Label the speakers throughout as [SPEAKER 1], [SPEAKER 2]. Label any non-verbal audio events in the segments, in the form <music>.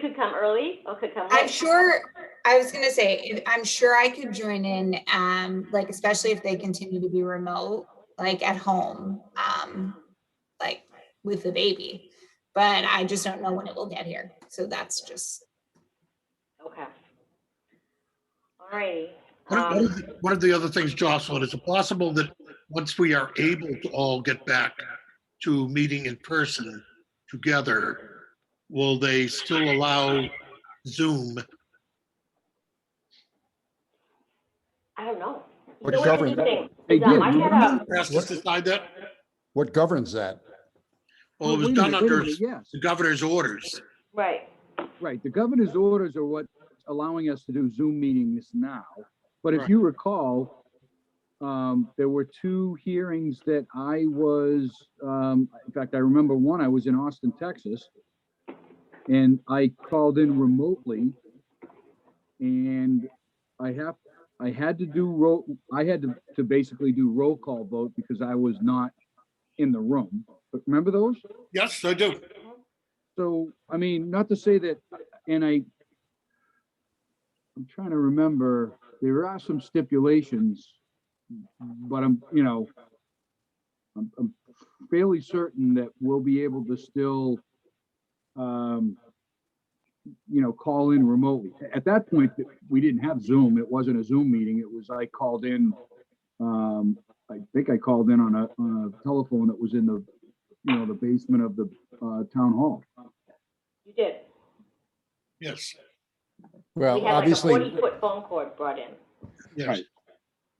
[SPEAKER 1] could come early or could come
[SPEAKER 2] I'm
[SPEAKER 1] late.
[SPEAKER 2] sure, I was gonna say, if- I'm sure I could join in, um, like especially if they continue to be remote, like at home, um, like with the baby. But I just don't know when it will get here. So that's just,
[SPEAKER 1] Okay. All righty.
[SPEAKER 3] What are- what
[SPEAKER 1] Um,
[SPEAKER 3] is- What are the other things, Jocelyn? Is it possible that once we are able to all get back to meeting in person together, will they still allow Zoom?
[SPEAKER 1] I don't know. So
[SPEAKER 4] What
[SPEAKER 1] what do you
[SPEAKER 4] governs that?
[SPEAKER 1] think?
[SPEAKER 5] Hey,
[SPEAKER 1] Dom,
[SPEAKER 5] Jim,
[SPEAKER 1] I
[SPEAKER 5] you-
[SPEAKER 1] had a-
[SPEAKER 3] Asked us to decide that?
[SPEAKER 4] What governs that?
[SPEAKER 3] Well, it was
[SPEAKER 5] wait a
[SPEAKER 3] done
[SPEAKER 5] minute, wait a
[SPEAKER 3] under
[SPEAKER 5] minute, Yes,
[SPEAKER 3] the governor's orders.
[SPEAKER 1] Right,
[SPEAKER 5] right. The governor's orders are what's allowing us to do Zoom meetings now. But if
[SPEAKER 3] Right.
[SPEAKER 5] you recall, um, there were two hearings that I was, um, in fact, I remember one, I was in Austin, Texas. And I called in remotely. And I have, I had to do roll, I had to, to basically do roll call vote because I was not in the room. But remember those?
[SPEAKER 3] Yes, I do.
[SPEAKER 5] So, I mean, not to say that, and I, I'm trying to remember, there are some stipulations, but I'm, you know, I'm, I'm fairly certain that we'll be able to still, um, you know, call in remotely. At that point, we didn't have Zoom. It wasn't a Zoom meeting. It was, I called in, um, I think I called in on a, on a telephone that was in the, you know, the basement of the uh, town hall.
[SPEAKER 1] you did.
[SPEAKER 3] Yes,
[SPEAKER 1] We
[SPEAKER 4] Well,
[SPEAKER 1] had like a
[SPEAKER 4] obviously,
[SPEAKER 1] forty-foot phone cord brought in.
[SPEAKER 3] yes.
[SPEAKER 5] Right.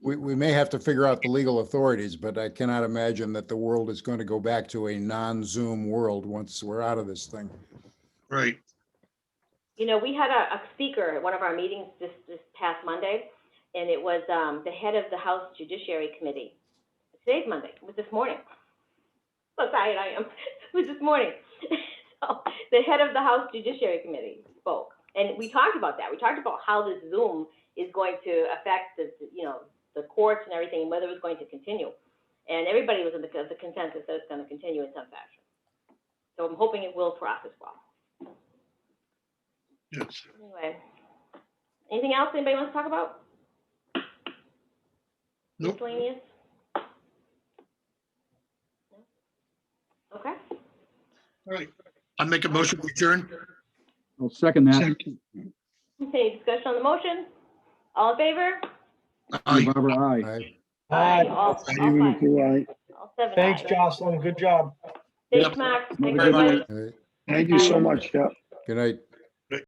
[SPEAKER 4] we, we may have to figure out the legal authorities, but I cannot imagine that the world is going to go back to a non-Zoom world once we're out of this thing.
[SPEAKER 3] Right.
[SPEAKER 1] You know, we had a, a speaker at one of our meetings this, this past Monday, and it was, um, the head of the House Judiciary Committee. Today's Monday, it was this morning. So tired I am, <laughs> it was this morning. <laughs> So, The head of the House Judiciary Committee spoke, and we talked about that. We talked about how this Zoom is going to affect the, the, you know, the courts and everything, whether it's going to continue. And everybody was in the, the consensus that it's gonna continue in some fashion. So I'm hoping it will for us as well.
[SPEAKER 3] Yes.
[SPEAKER 1] Anyway, anything else anybody wants to talk about?
[SPEAKER 3] Nope.
[SPEAKER 1] Miscellaneous? No? Okay,
[SPEAKER 3] All right. I make a motion to adjourn.
[SPEAKER 5] I'll second that.
[SPEAKER 3] Second.
[SPEAKER 1] any discussion on the motion? All in favor?
[SPEAKER 3] Aye.
[SPEAKER 5] Barbara, aye.
[SPEAKER 4] I-
[SPEAKER 6] Aye.
[SPEAKER 1] All, all
[SPEAKER 3] I
[SPEAKER 1] five. All seven
[SPEAKER 6] Thanks,
[SPEAKER 1] ayes.
[SPEAKER 6] Jocelyn. Good job.
[SPEAKER 1] Thanks,
[SPEAKER 3] Yep.
[SPEAKER 1] Mark. Thanks,
[SPEAKER 5] Have a good
[SPEAKER 1] everybody.
[SPEAKER 4] I-
[SPEAKER 6] Thank you so much, Jeff.
[SPEAKER 4] Good night.